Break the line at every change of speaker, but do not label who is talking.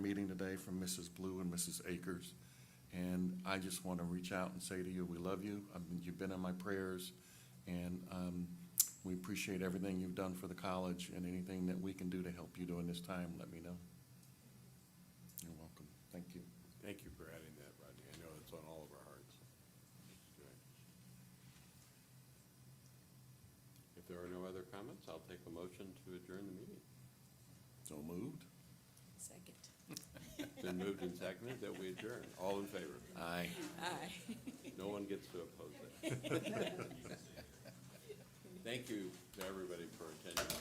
meeting today from Mrs. Blue and Mrs. Akers. And I just want to reach out and say to you, we love you. I mean, You've been in my prayers. And um, we appreciate everything you've done for the college and anything that we can do to help you during this time, let me know. You're welcome. Thank you.
Thank you for adding that, Rodney. I know it's on all of our hearts. Good. If there are no other comments, I'll take a motion to adjourn the meeting.
So moved?
Second.
It's been moved and seconded that we adjourn. All in favor?
Aye.
Aye.
No one gets to oppose it. Thank you to everybody for attending.